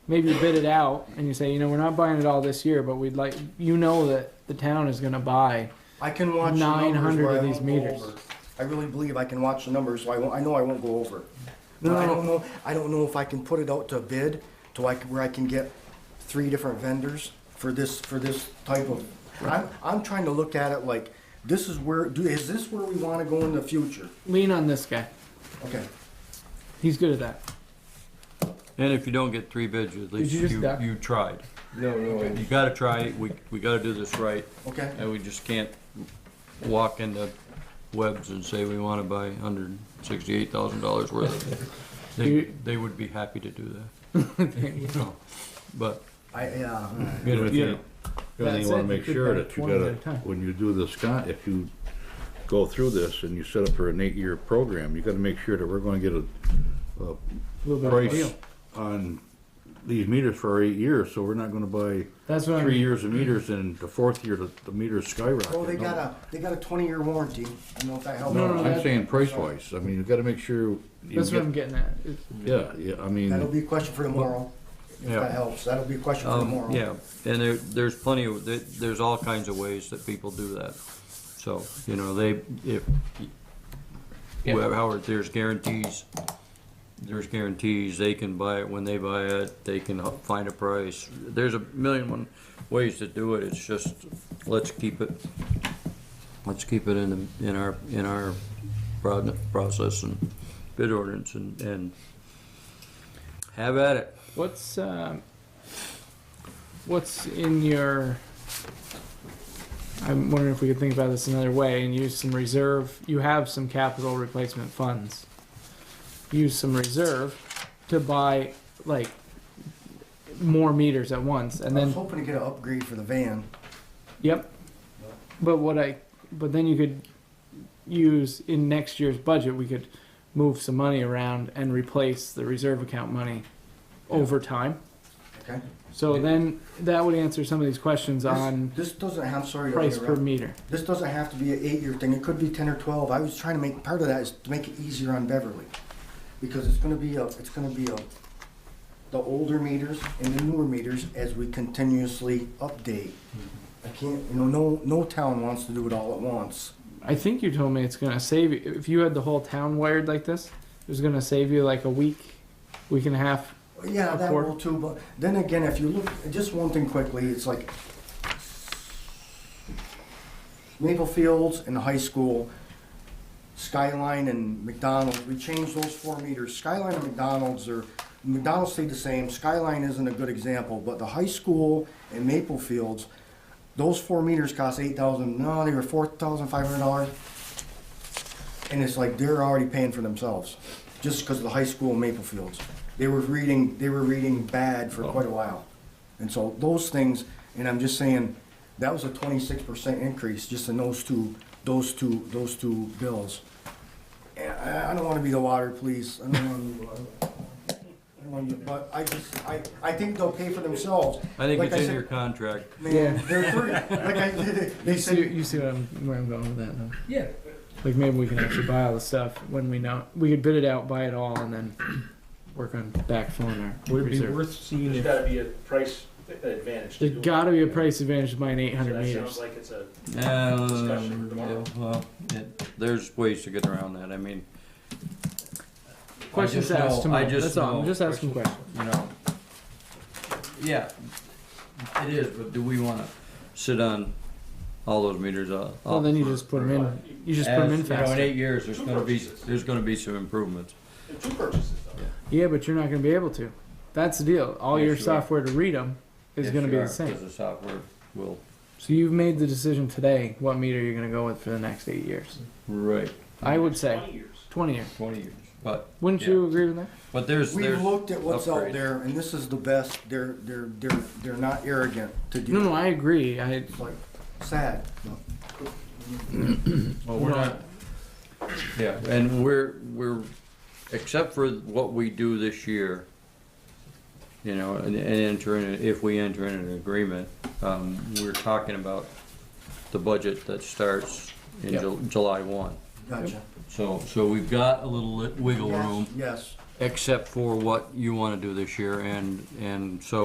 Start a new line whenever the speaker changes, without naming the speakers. maybe you bid it out and you say, you know, we're not buying it all this year, but we'd like, you know, that the town is going to buy.
I can watch the numbers
900
where
of
I
these
won't go
meters.
over. I really believe I can watch the numbers, so I won't, I know I won't go over.
No,
But I
no.
don't know, I don't know if I can put it out to bid to like, where I can get three different vendors for this, for this type of. I'm, I'm trying to look at it like, this is where, do, is this where we wanna go in the future?
Lean on this guy.
Okay.
He's good at that.
And if you don't get three bids, at least
you just
you,
duck?
you tried.
No, no.
You gotta try, we, we gotta do this right,
Okay,
and we just can't walk into webs and say we wanna buy hundred and sixty-eight thousand dollars worth of it. They,
You-
they would be happy to do that. You know, But,
I, yeah,
The only
you know,
thing- the only
That's
thing you wanna
it,
make
you
sure
could
that you
buy 20 at a
gotta,
time.
when you do this, con- if you go through this and you set up for an eight-year program, you gotta make sure that we're gonna get a
A little bit of a
price
deal.
on these meters for our eight years, so we're not gonna buy
That's what I
three
mean.
years of meters and the fourth year, the, the meters skyrocket.
well, Oh, they
No.
got a, they got a twenty-year warranty, you know, if that helps.
No,
no,
I'm
that-
saying price-wise, I mean, you gotta make sure. you
That's what
get-
I'm getting at. It-
Yeah, yeah, I mean.
That'll be a question for tomorrow, if
Yeah.
that helps, that'll be a question for
um,
tomorrow.
yeah, and there, there's plenty of, there- there's all kinds of ways that people do that. So, you know, they, if, whoever, Howard, there's guarantees, there's guarantees, they can buy it when they buy it, they can h- find a price. There's a million and one ways to do it, it's just, let's keep it, let's keep it in, the- in our, in our prod- process and bid ordinance and, and have at it.
What's, um, what's in your, I'm wondering if we could think about this another way and use some reserve. You have some capital replacement funds. Use some reserve to buy like more meters at once and
I
then
was hoping to get an upgrade for the van.
Yep. But what I, but then you could use in next year's budget, we could move some money around and replace the reserve account money over time.
Okay.
So then that would answer some of these questions on
This this doesn't have, I'm sorry. to
price per
interrupt.
meter.
This doesn't have to be an eight-year thing, it could be ten or twelve, I was trying to make, part of that is to make it easier on Beverly. Because it's gonna be a, it's gonna be a, the older meters and the newer meters as we continuously update. I can't, you know, no, no town wants to do it all at once.
I think you told me it's gonna save you, if you had the whole town wired like this, it was gonna save you like a week, week and a half.
Yeah,
Of
that
course.
will too, but then again, if you look, just one thing quickly, it's like Maple Fields and the high school, Skyline and McDonald's, we changed those four meters. Skyline and McDonald's are, McDonald's stayed the same, Skyline isn't a good example, but the high school and Maple Fields, those four meters cost eight thousand, no, they were four thousand five hundred dollars. And it's like they're already paying for themselves, just because of the high school in Maple Fields. They were reading, they were reading bad for quite a while. And so those things, and I'm just saying, that was a twenty-six percent increase just in those two, those two, those two bills. And I, I don't wanna be the water police, I don't wanna, be- I don't wanna, be- but I just, I, I think they'll pay for themselves.
I think
Like
it's in
said,
your contract.
Man, they're free, like I,
You
they
see,
said,
you see what I'm, where I'm going with that though?
Yeah.
Like maybe we can actually buy all the stuff when we know, we could bid it out, buy it all and then work on backfilling our
Would it be
reserve.
worth seeing
There's
if,
gotta be a price advantage. to
There's
do it.
got to be a price advantage to buying 800
So That
meters.
sounds like it's a, Discussion
Um,
tomorrow.
yeah, well, it- There's ways to get around that, I mean. I
Questions
just
asked
know-
tomorrow.
I just
That's all. I'm
know-
just asking questions.
You know, yeah, it is, but do we wanna sit on all those meters? uh,
Well, then you
up
just put
for-
them in. You just put them
as,
in
you know, in
faster.
eight years, there's
Two
gonna be,
purchases.
there's gonna be some improvements.
two purchases though.
Yeah, but you're not going to be able to. That's the deal. All
Yes,
your
you are.
software to read them is
Yes,
going to
you
be
are,
the same.
Cause the software will.
So you've made the decision today what meter you're going to go with for the next eight years.
Mm-hmm. Right.
I would say
Twenty years.
20 years.
Twenty years, but,
Wouldn't
Yeah.
you agree with that?
but there's,
we
there's.
looked at what's out
upgrades.
there, and this is the best, they're, they're, they're, they're not arrogant to do.
No, no, I agree. I
It's like, sad.
Well, we're not, yeah, and we're, we're, except for what we do this year, you know, and, and enter in, if we enter in an agreement, um, we're talking about the budget that starts in Ju- July one.
Gotcha.
So, so we've got a little li- wiggle
Yes,
room
Yes,
except for what you wanna do this year, and, and so